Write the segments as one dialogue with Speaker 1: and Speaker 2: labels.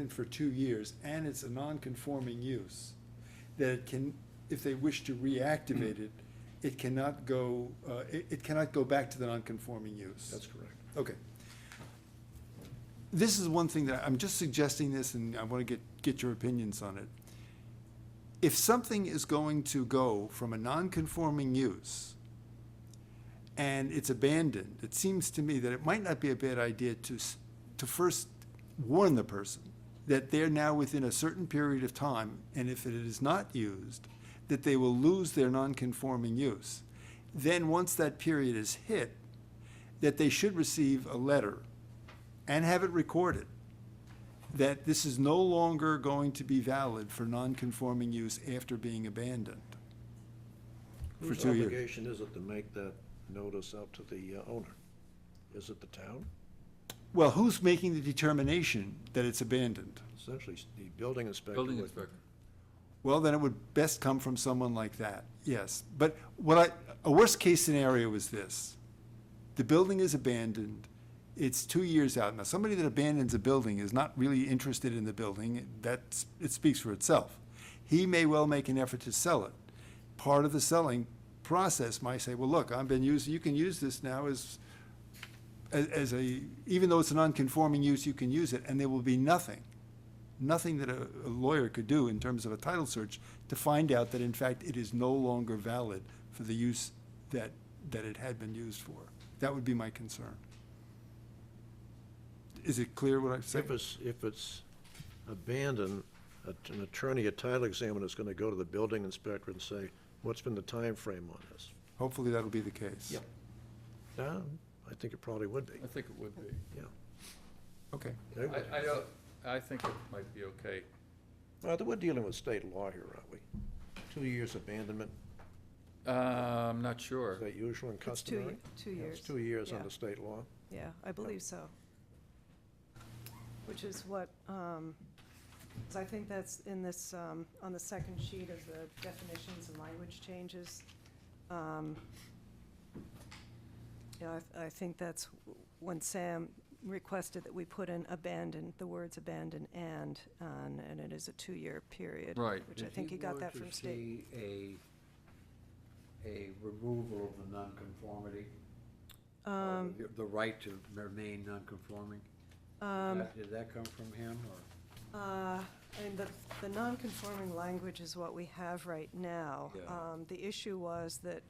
Speaker 1: in for two years, and it's a non-conforming use, that it can, if they wish to reactivate it, it cannot go, uh, it, it cannot go back to the non-conforming use.
Speaker 2: That's correct.
Speaker 1: Okay. This is one thing that, I'm just suggesting this, and I wanna get, get your opinions on it. If something is going to go from a non-conforming use, and it's abandoned, it seems to me that it might not be a bad idea to, s- to first warn the person that they're now within a certain period of time, and if it is not used, that they will lose their non-conforming use. Then, once that period is hit, that they should receive a letter and have it recorded that this is no longer going to be valid for non-conforming use after being abandoned. For
Speaker 2: Whose
Speaker 1: two years.
Speaker 2: obligation is it to make that notice out to the uh, owner? Is it the town?
Speaker 1: Well, who's making the determination that it's abandoned?
Speaker 2: Essentially, s- the building inspector.
Speaker 3: Building
Speaker 2: would-
Speaker 3: inspector.
Speaker 1: Well, then it would best come from someone like that, yes. But what I, a worst-case scenario is this. The building is abandoned, it's two years out. Now, somebody that abandons a building is not really interested in the building, that's, it speaks for itself. He may well make an effort to sell it. Part of the selling process might say, well, look, I've been using, you can use this now as, as, as a, even though it's a non-conforming use, you can use it, and there will be nothing nothing that a a lawyer could do in terms of a title search to find out that in fact it is no longer valid for the use that, that it had been used for. That would be my concern. Is it clear what I'm saying?
Speaker 2: If it's, if it's abandoned, a- an attorney, a title examiner is going to go to the building inspector and say, what's been the time frame on this?
Speaker 1: Hopefully that'll be the case.
Speaker 2: Yeah. No, I think it probably would be,
Speaker 3: I think it would be.
Speaker 2: yeah.
Speaker 1: Okay.
Speaker 2: They would.
Speaker 3: I, I don't, I think it might be okay.
Speaker 2: Well, we're dealing with state law here, aren't we? Two years abandonment,
Speaker 3: Uh, I'm not sure.
Speaker 2: is that usual and
Speaker 4: It's two,
Speaker 2: customary?
Speaker 4: ye- two
Speaker 2: Yeah,
Speaker 4: years.
Speaker 2: It's two years
Speaker 4: Yeah.
Speaker 2: under state law.
Speaker 4: Yeah, I believe so. Which is what, um, 'cause I think that's in this, um, on the second sheet of the definitions and language changes. Um, Yeah, I, th- I think that's w- when Sam requested that we put in abandon, the words abandon and, on, and it is a two-year period.
Speaker 3: Right.
Speaker 4: Which I think he got that from state.
Speaker 5: If you were to see a, a removal of the nonconformity, or the- the right to remain nonconforming,
Speaker 4: Um,
Speaker 5: that- did that come from him,
Speaker 4: Uh,
Speaker 5: or?
Speaker 4: I mean, the, the non-conforming language is what we have right now.
Speaker 5: Yeah.
Speaker 4: Um, The issue was that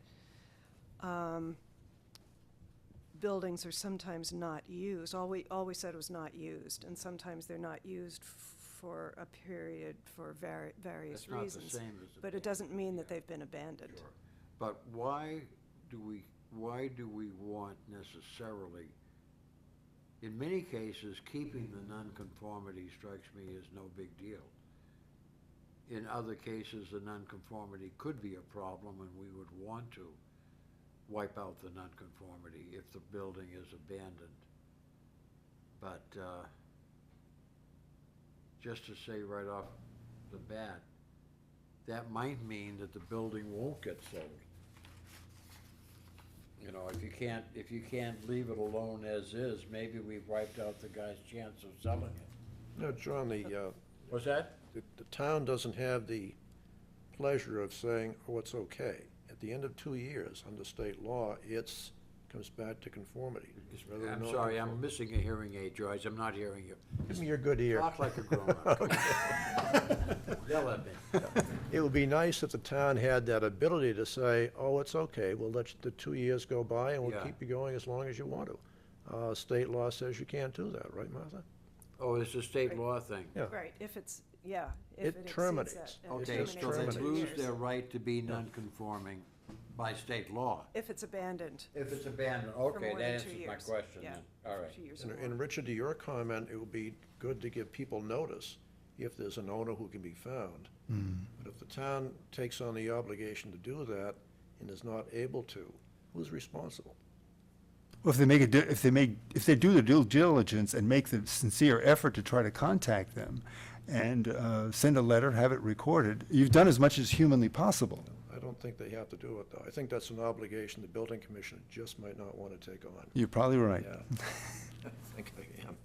Speaker 4: um, buildings are sometimes not used. All we, all we said was not used, and sometimes they're not used for a period for vari- various
Speaker 5: That's not the
Speaker 4: reasons.
Speaker 5: same as
Speaker 4: But it doesn't mean that
Speaker 5: yeah.
Speaker 4: they've been abandoned.
Speaker 5: Sure. But why do we, why do we want necessarily, in many cases, keeping the nonconformity strikes me as no big deal. In other cases, the nonconformity could be a problem, and we would want to wipe out the nonconformity if the building is abandoned. But, uh, just to say right off the bat, that might mean that the building won't get sold. You know, if you can't, if you can't leave it alone as is, maybe we've wiped out the guy's chance of selling it.
Speaker 2: No, John, the, uh,
Speaker 5: What's that?
Speaker 2: the, the town doesn't have the pleasure of saying, oh, it's okay. At the end of two years, under state law, it's, comes back to conformity. rather than
Speaker 5: I'm sorry, I'm
Speaker 2: nonconform-
Speaker 5: missing a hearing aid, George, I'm not hearing you.
Speaker 2: Give me your good ear.
Speaker 5: Talk like a grown-up. Come on. Yell at me.
Speaker 2: It would be nice if the town had that ability to say, oh, it's okay, we'll let the two years go by and we'll
Speaker 5: Yeah.
Speaker 2: keep you going as long as you want to. Uh, state law says you can't do that, right, Martha?
Speaker 5: Oh, it's a state law thing.
Speaker 2: Yeah.
Speaker 4: Right, if it's, yeah, if it
Speaker 2: It
Speaker 4: exceeds that.
Speaker 2: terminates.
Speaker 4: it
Speaker 5: Okay,
Speaker 4: terminates
Speaker 2: just
Speaker 5: so they
Speaker 4: in
Speaker 2: terminated.
Speaker 4: two
Speaker 5: lose
Speaker 4: years.
Speaker 5: their right to be non-conforming by state law.
Speaker 4: If it's abandoned.
Speaker 5: If it's abandoned,
Speaker 4: for
Speaker 5: okay,
Speaker 4: more than
Speaker 5: that
Speaker 4: two
Speaker 5: answers my
Speaker 4: years.
Speaker 5: question
Speaker 4: Yeah,
Speaker 5: then, all
Speaker 4: for
Speaker 5: right.
Speaker 4: two years or
Speaker 2: And,
Speaker 4: more.
Speaker 2: and Richard, to your comment, it would be good to give people notice if there's an owner who can be found. But if the town takes on the obligation to do that and is not able to, who's responsible?
Speaker 1: Well, if they make a, di- if they make, if they do the due diligence and make the sincere effort to try to contact them and uh, send a letter, have it recorded, you've done as much as humanly possible.
Speaker 2: I don't think they have to do it, though. I think that's an obligation the building commissioner just might not want to take on.
Speaker 1: You're probably right.
Speaker 2: Yeah. I think I am.